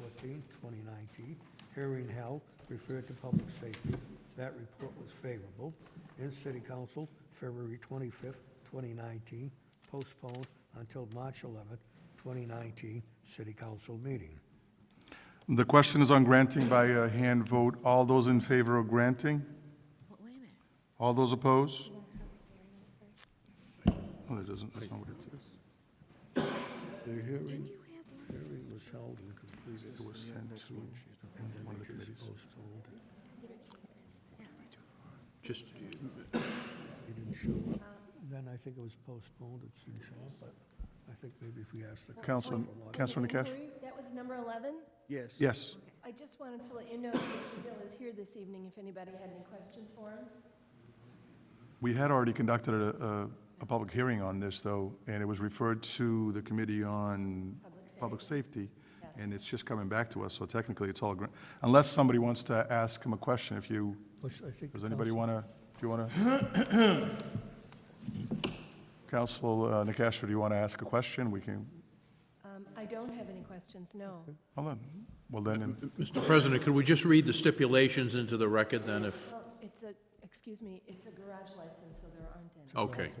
13, 2019, hearing held, referred to public safety. That report was favorable. In city council, February 25, 2019, postponed until March 11, 2019, city council meeting. The question is on granting by a hand vote. All those in favor of granting? Wait a minute. All those opposed? Oh, that doesn't, that's not what it says. The hearing, hearing was held and completed. It was sent to one of the committees. Postponed. Just, uh, It didn't show up. Then I think it was postponed, it shouldn't show up, but I think maybe if we ask the. Council, Councilor Can we Nakash? approve? That was number 11. yes. Yes. I just wanted to let you know that Mr. Gill is here this evening if anybody had any questions for him. We had already conducted a, a, a public hearing on this, though, and it was referred to the Committee on Public Safety, and it's just coming back to us, so technically it's all, gra- unless somebody wants to ask him a question, if you, Which I think. does anybody Council- want to, do you want to? Council Nakash, uh, do you want to ask a question? We can, Um, I don't have any questions, no. hold on, well then, Mr. President, could we just read the stipulations into the record then if, Well, it's a, excuse me, it's a garage license, so there aren't any. okay.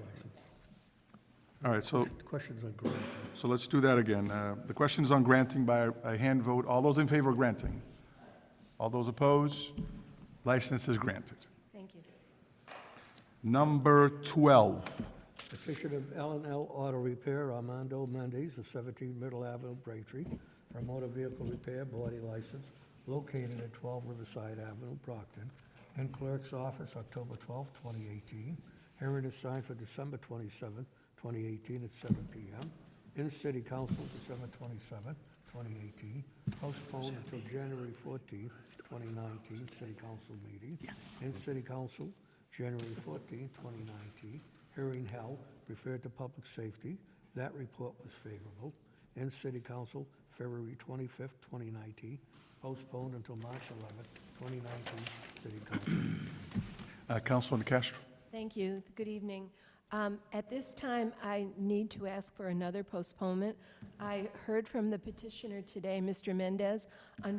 all right, so Questions on granting. So let's do that again. Uh, The question is on granting by a hand vote. All those in favor of granting? All those opposed? License is granted. Thank you. Number 12. Petition of L and L Auto Repair, Armando Mendez of 17 Middle Avenue, Braintree, for a motor vehicle repair body license located at 12 Riverside Avenue, Brockton, and Clerk's Office, October 12, 2018. Hearing is signed for December 27, 2018, at 7 PM. In City Council, December 27, 2018. Postponed until January 14, 2019, City Council meeting. In City Council, January 14, 2019. Hearing held, referred to public safety. That report was favorable. In City Council, February 25, 2019. Postponed until March 11, 2019, City Council. Uh, Councilman Castro. Thank you. Good evening. Um, At this time, I need to ask for another postponement. I heard from the petitioner today, Mr. Mendez.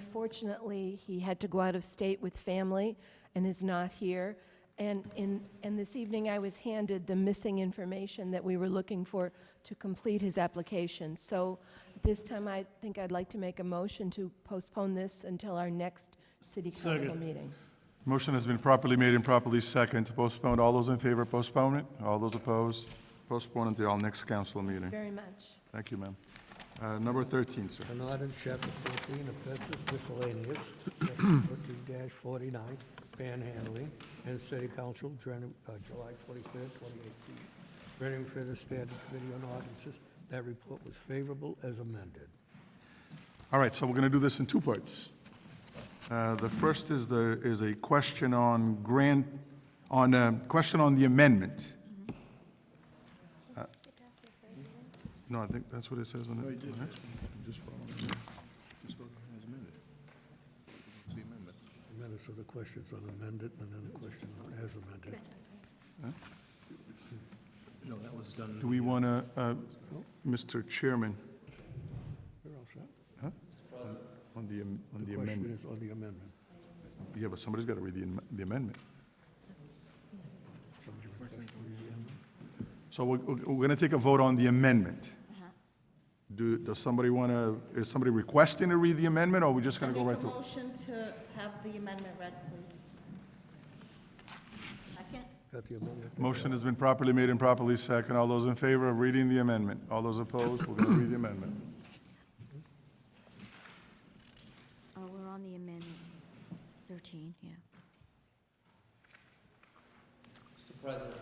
Unfortunately, he had to go out of state with family and is not here. And in, and this evening, I was handed the missing information that we were looking for to complete his application. So at this time, I think I'd like to make a motion to postpone this until our next city council meeting. Motion has been properly made and properly seconded to postpone. All those in favor, postpone it. All those opposed, postpone until our next council meeting. Very much. Thank you, ma'am. Uh, Number 13, sir. An ordinance, chapter fourteen of Texas miscellaneous, section fourteen forty-nine, panhandling, and city council, Jan- uh, July twenty-third, twenty eighteen. Running for the standing committee on ordinances, that report was favorable as amended. All right, so we're going to do this in two parts. Uh, The first is the, is a question on grant, on, a question on the amendment. Uh, No, I think that's what it says on the on the next And then it's the questions on amended, and then a question on as amended. one. Do we want to, Mr. Chairman, You're all set. on the am- on the The question amendment? is on the amendment. Yeah, but somebody's got to read the am- the amendment. Somebody requested to read the amendment. So we're going to take a vote on the amendment. Do, does somebody want to, is somebody requesting to read the amendment, or are we just going to go right Make a to? motion to have the amendment read, please. Second? Got the amendment? Motion has been properly made and properly seconded. All those in favor of reading the amendment? All those opposed? We're going to read the amendment. Oh, we're on the amendment 13, yeah. Mr. President,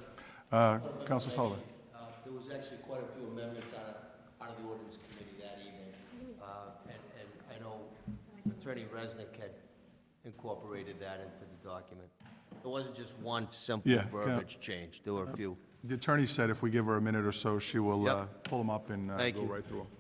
Uh, Counselor Sullivan? uh, there was actually quite a few amendments out of, out of the ordinance committee that evening. Uh, And, and I know Attorney Resnick had incorporated that into the document. It wasn't just one simple Yeah, yeah. verbiage change, there were a few. The attorney said if we give her a minute or so, she will uh, Yep. pull them up and uh, Thank go you. right through them.